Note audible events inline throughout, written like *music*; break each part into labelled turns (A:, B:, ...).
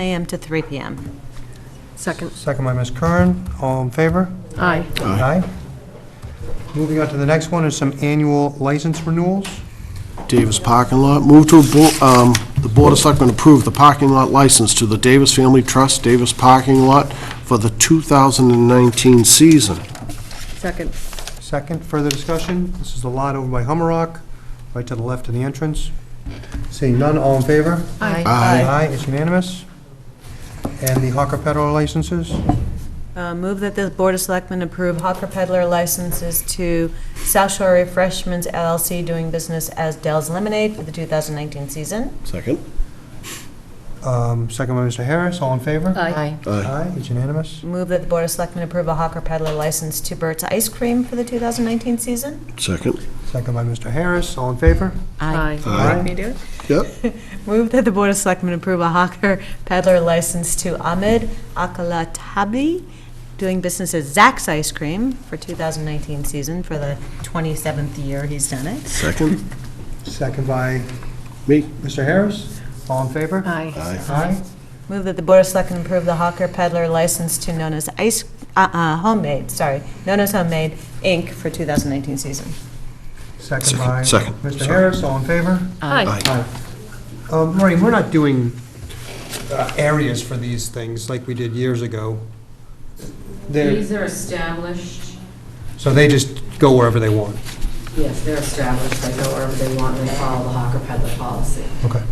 A: AM to 3 PM.
B: Second.
C: Second by Ms. Kern, all in favor?
B: Aye.
C: Aye. Moving on to the next one is some annual license renewals.
D: Davis parking lot. Move to, abo- um, the Board of Selectmen approve the parking lot license to the Davis Family Trust Davis Parking Lot for the 2019 season.
B: Second.
C: Second, further discussion, this is the lot over by Hummerock, right to the left of the entrance. Seeing none, all in favor?
B: Aye.
D: Aye.
C: Aye, it's unanimous. And the hawker Pedal licenses?
A: Uh, Move that the Board of Selectmen approve hawker Peddler licenses to South Shore Refreshments LLC doing business as Dell's Lemonade for the 2019 season.
D: Second.
C: Um, Second by Mr. Harris, all in favor?
B: Aye.
D: Aye.
C: Aye, it's unanimous.
A: Move that the Board of Selectmen approve a hawker Peddler license to Burt's Ice Cream for the 2019 season.
D: Second.
C: Second by Mr. Harris, all in favor?
B: Aye.
D: Aye.
A: do it?
D: Yep.
A: Move that the Board of Selectmen approve a hawker Peddler license to Ahmed Akalatabi doing business as Zack's Ice Cream for 2019 season for the 27th year he's done it.
D: Second.
C: Second by
D: Me.
C: Mr. Harris, all in favor?
B: Aye.
D: Aye.
C: Aye,
A: Move that the Board of Selectmen approve the Hawker Peddler license to Nona's Ice, uh, uh, Homemade, sorry, Nona's Homemade, Inc. for 2019 season.
C: second by
D: Second, second,
C: Mr.
D: sorry.
C: Harris, all in favor?
B: Aye.
C: Hi. Um, Maureen, we're not doing uh, areas for these things like we did years ago. They're,
E: These are established,
C: so they just go wherever they want.
E: yes, they're established, they go wherever they want, and they follow the hawker peddler policy,
C: Okay.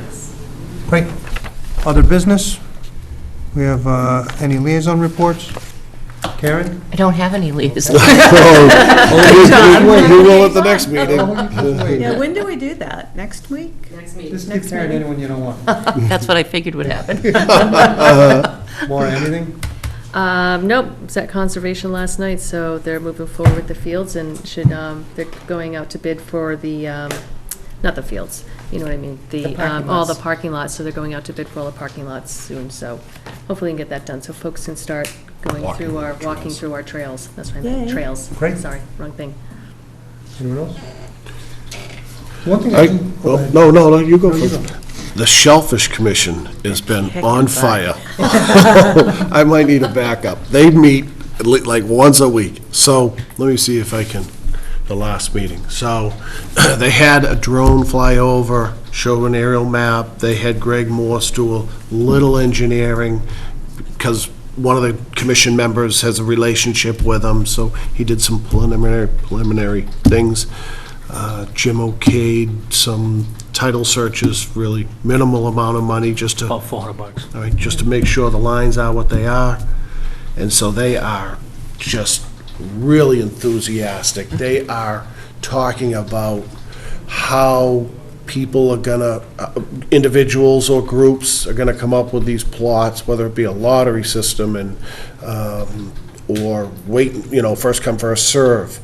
E: yes.
C: Great. Other business? We have uh, any liaison reports? Karen?
F: I don't have any leaves.
D: Oh, You will at the next
C: Oh,
D: meeting.
A: Yeah, when do we do that? Next week?
E: Next meeting.
C: Just give Karen anyone you don't want.
F: *laughs* That's what I figured would
C: *laughs*
F: happen.
C: Laura, anything?
B: Um, nope, it was at conservation last night, so they're moving forward with the fields and should, um, they're going out to bid for the, um, not the fields, you know what I mean? The, um, all the parking lots, so they're going out to bid for all the parking lots soon, so hopefully we can get that done, so folks can start going
D: Walking
B: through our,
D: trails.
B: walking through our trails, that's what I meant,
A: Yay.
B: trails.
C: Great.
B: Sorry, wrong thing.
C: Anyone else? One thing I
D: Aye.
C: can...
D: Well, no, no, no, you go first. The Shellfish Commission has been on fire. I might need a backup. They meet at le- like once a week. So let me see if I can, the last meeting. So *clears throat* they had a drone fly over, show an aerial map. They had Greg Morse do a little engineering because one of the commission members has a relationship with them. So he did some preliminary, preliminary things. Uh, Jim okayed some title searches, really minimal amount of money just to
G: About 400 bucks.
D: all right, just to make sure the lines are what they are. And so they are just really enthusiastic. They are talking about how people are gonna, uh, individuals or groups are gonna come up with these plots, whether it be a lottery system and, um, or wait, you know, first come, first serve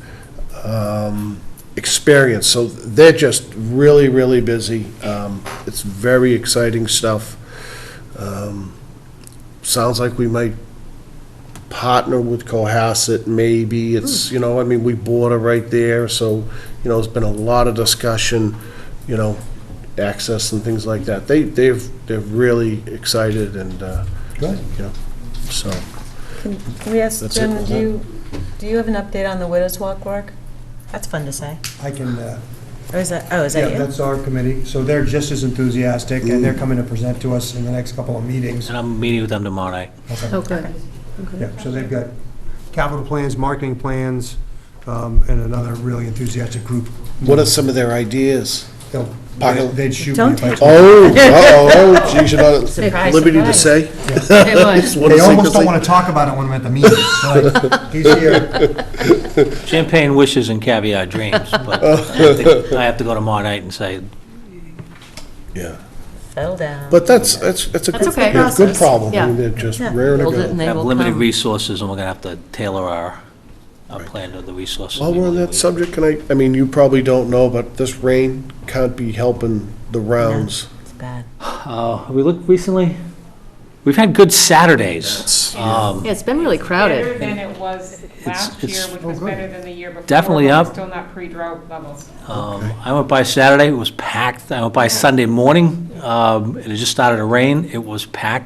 D: um, experience. So they're just really, really busy. Um, It's very exciting stuff. Um, Sounds like we might partner with Cohasset, maybe. It's, you know, I mean, we border right there, so, you know, there's been a lot of discussion, you know, access and things like that. They, they've, they're really excited and, uh, you
C: Good.
D: know, so.
A: Can we ask
D: That's it,
A: Jim,
D: wasn't
A: do
D: it?
A: you, do you have an update on the Widows Walk work? That's fun to say.
C: I can, uh,
A: Or is that, oh, is
C: yeah,
A: that you?
C: that's our committee. So they're just as enthusiastic, and
D: Mm.
C: they're coming to present to us in the next couple of meetings.
G: And I'm meeting with them tomorrow night.
C: Okay.
B: Oh, good.
C: Yeah, so they've got capital plans, marketing plans, um, and another really enthusiastic group.
D: What are some of their ideas?
C: They'll-
D: Pile-
C: They'd shoot me
A: Don't
C: if I
A: take-
C: told
D: Oh, *laughs* uh-oh, geez, you're not at
A: Surprise,
D: liberty to
A: surprise.
D: say?
B: It was.
D: *laughs* It's one of
C: They
D: the
C: almost don't
D: secrets-
C: want to talk about it when I'm at the meeting. They're like, He's here.
G: Champagne wishes and caviar dreams,
D: *laughs*
G: but I have to- I have to go tomorrow night and say,
D: Yeah,
A: Fell down.
D: but that's, that's, that's a
F: That's
D: good,
F: okay.
D: yeah, good problem, I
F: Yeah.
D: mean, they're just
A: Yeah.
D: rare to
F: Build it
D: go.
F: and they
G: have
F: will
G: limited
F: come.
G: resources, and we're going to have to tailor our, our plan to the resources.
D: While
G: we
D: we're on
G: believe
D: that
G: we-
D: subject, can I, I mean, you probably don't know, but this rain can't be helping the rounds.
A: It's bad.
G: Uh, Have we looked recently? We've had good Saturdays.
D: That's-
G: Um,
B: Yeah, it's been really
H: Better
B: crowded.
H: than it was last year,
G: it's-
H: which was better than the year before.
G: Definitely
H: but we're
G: up.
H: Still not pre-drought levels.
G: Um, I went by Saturday, it was packed. I went by Sunday morning, um, and it just started to rain. It was packed.